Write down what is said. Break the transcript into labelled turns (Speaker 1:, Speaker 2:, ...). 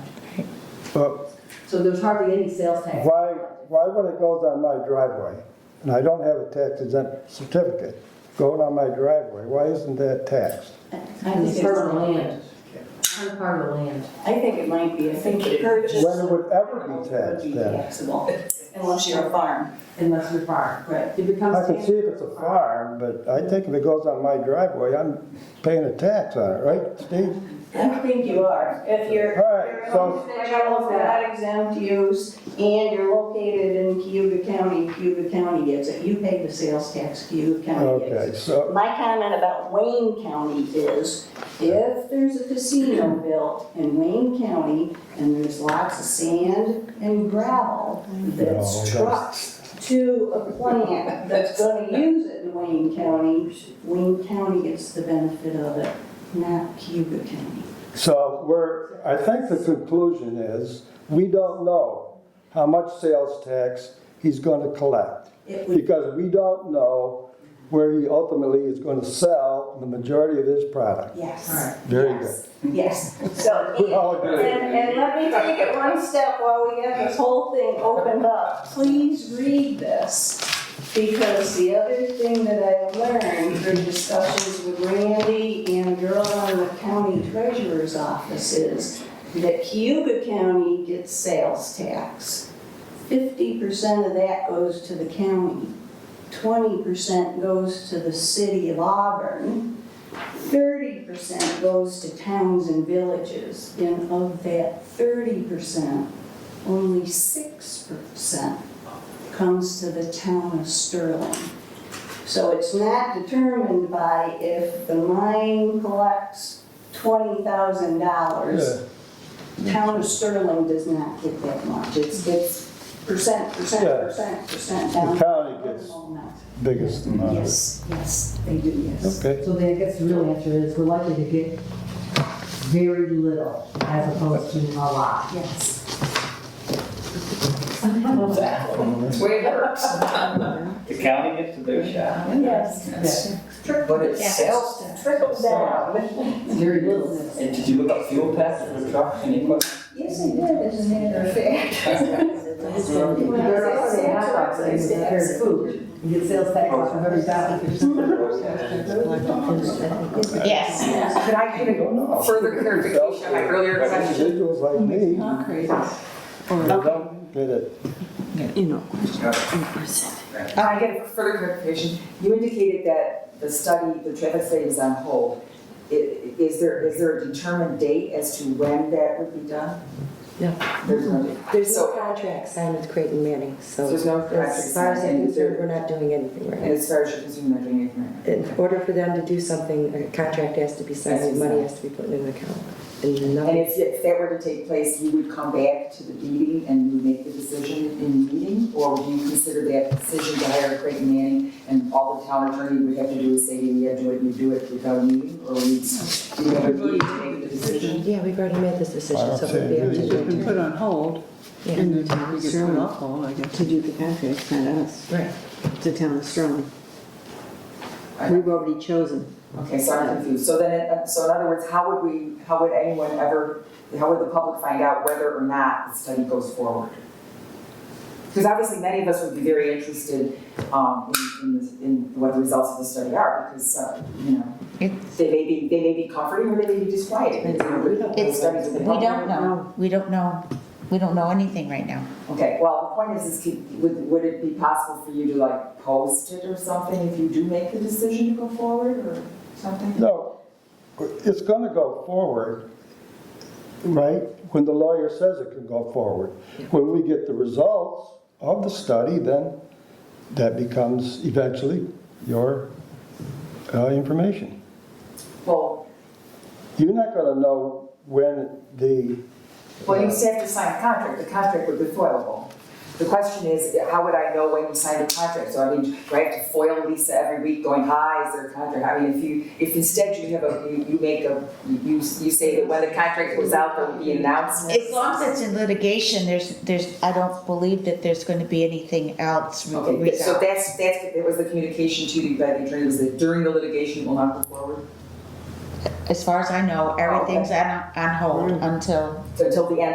Speaker 1: But
Speaker 2: So there's hardly any sales tax.
Speaker 1: why, why when it goes on my driveway, and I don't have a tax exempt certificate, going on my driveway, why isn't that taxed?
Speaker 3: I think
Speaker 2: It's part of the
Speaker 3: it's-
Speaker 2: land. It's part of the land.
Speaker 3: I think it might be, I think the purchase.
Speaker 1: When it would ever be taxed
Speaker 3: Would be
Speaker 1: then?
Speaker 3: taxable, unless you're a farm,
Speaker 2: unless you're farm.
Speaker 3: right?
Speaker 2: It becomes.
Speaker 1: I can see if it's a farm, but I think if it goes on my driveway, I'm paying a tax on it, right, Steve?
Speaker 3: I don't think you are, if you're.
Speaker 1: All right,
Speaker 3: you're
Speaker 1: so-
Speaker 3: owned by general, not exempt use, and you're located in Cuba County, Cuba County gets it, you pay the sales tax, Cuba County gets it.
Speaker 1: Okay, so,
Speaker 3: My comment about Wayne County is, if there's a casino built in Wayne County and there's lots of sand and gravel
Speaker 1: No, that's-
Speaker 3: that's trucked to a plant that's gonna use it in Wayne County, Wayne County gets the benefit of it, not Cuba County.
Speaker 1: so we're, I think the conclusion is, we don't know how much sales tax he's gonna collect.
Speaker 3: It would,
Speaker 1: Because we don't know where he ultimately is gonna sell the majority of his product.
Speaker 3: yes.
Speaker 1: Very good.
Speaker 3: yes, Yes, so.
Speaker 1: We all
Speaker 3: And,
Speaker 1: agree.
Speaker 3: and let me take it one step while we have this whole thing opened up. Please read this, because the other thing that I learned through discussions with Randy and Earl on the county treasurer's office is that Cuba County gets sales tax. Fifty percent of that goes to the county, twenty percent goes to the city of Auburn, Thirty percent goes to towns and villages, and of that thirty percent, only six percent comes to the town of Sterling. So it's not determined by if the mine collects twenty thousand dollars. Town of Sterling does not get that much, it's, it's percent, percent,
Speaker 1: Yeah.
Speaker 3: percent, percent down.
Speaker 1: The county gets biggest amount of it.
Speaker 3: Yes, yes, they do, yes.
Speaker 1: Okay,
Speaker 2: So then I guess the real answer is we're likely to get very little as opposed to a lot.
Speaker 3: Yes.
Speaker 4: Way works. The county gets to their shot.
Speaker 3: Yes.
Speaker 5: But it's sales tax.
Speaker 3: Trickle down.
Speaker 2: It's Very little.
Speaker 4: And did you look up fuel tax for trucks and equipment?
Speaker 3: Yes, I did, as a matter of
Speaker 2: They're not really hot dogs, they just prepare food. You get sales tax from every dollar. oh,
Speaker 3: Yes.
Speaker 5: Could I get a further clarification on my earlier question?
Speaker 1: individuals like me, they don't get it.
Speaker 5: Can I get a further clarification? You indicated that the study, the traffic study is on hold. I- Is there, is there a determined date as to when that would be done?
Speaker 6: No.
Speaker 5: There's no date.
Speaker 6: There's no
Speaker 5: So-
Speaker 6: contract signed with Creighton Manning, so
Speaker 5: There's no contract
Speaker 6: as far as
Speaker 5: signed,
Speaker 6: I'm
Speaker 5: is there-
Speaker 6: concerned, we're not doing anything
Speaker 5: And
Speaker 6: right
Speaker 5: as far as you're concerned, they're doing it from
Speaker 6: now. In order for them to do something, a contract has to be signed, and money has to be put in an account. And
Speaker 5: And
Speaker 6: nothing,
Speaker 5: if, if that were to take place, you would come back to the meeting and you would make the decision in the meeting? Or would you consider that decision to hire Creighton Manning and all the town attorney would have to do is say, yeah, do it, you do it without a meeting? Or would you do you have a meeting to make the decision?
Speaker 6: yeah, we've already made this decision, so it would be up to
Speaker 1: It's
Speaker 6: the
Speaker 7: been
Speaker 6: attorney.
Speaker 7: put on hold, and the town of Sterling, to do the contract, not us,
Speaker 6: Right.
Speaker 7: the town of Sterling. We've already chosen.
Speaker 5: Okay, so I'm confused. So then, it- so in other words, how would we, how would anyone ever, how would the public find out whether or not the study goes forward? Because obviously, many of us would be very interested um, in, in this- in what the results of the study are, because, uh, you know, they may be, they may be comforting or they may be disquieting.
Speaker 8: It's, we don't know, we don't know, we don't know anything right now.
Speaker 5: Okay, well, the point is, is could- would, would it be possible for you to like post it or something if you do make the decision to go forward or something?
Speaker 1: No, it's gonna go forward, right? When the lawyer says it can go forward. When we get the results of the study, then that becomes eventually your uh, information.
Speaker 5: Well,
Speaker 1: You're not gonna know when the,
Speaker 5: Well, you still have to sign a contract, the contract would be foilable. The question is, how would I know when you signed the contract? So I mean, do I have to foil Lisa every week going, hi, is there a contract? I mean, if you, if instead you have a, you, you make a, you, you say that when the contract goes out, there will be announcements.
Speaker 8: As long as it's in litigation, there's, there's, I don't believe that there's gonna be anything else
Speaker 5: Okay, but- so
Speaker 8: regarding.
Speaker 5: that's, that's, that was the communication to you by the attorney, was that during the litigation, we'll not go forward,
Speaker 8: As far as I know, everything's on, on hold until
Speaker 5: so until the end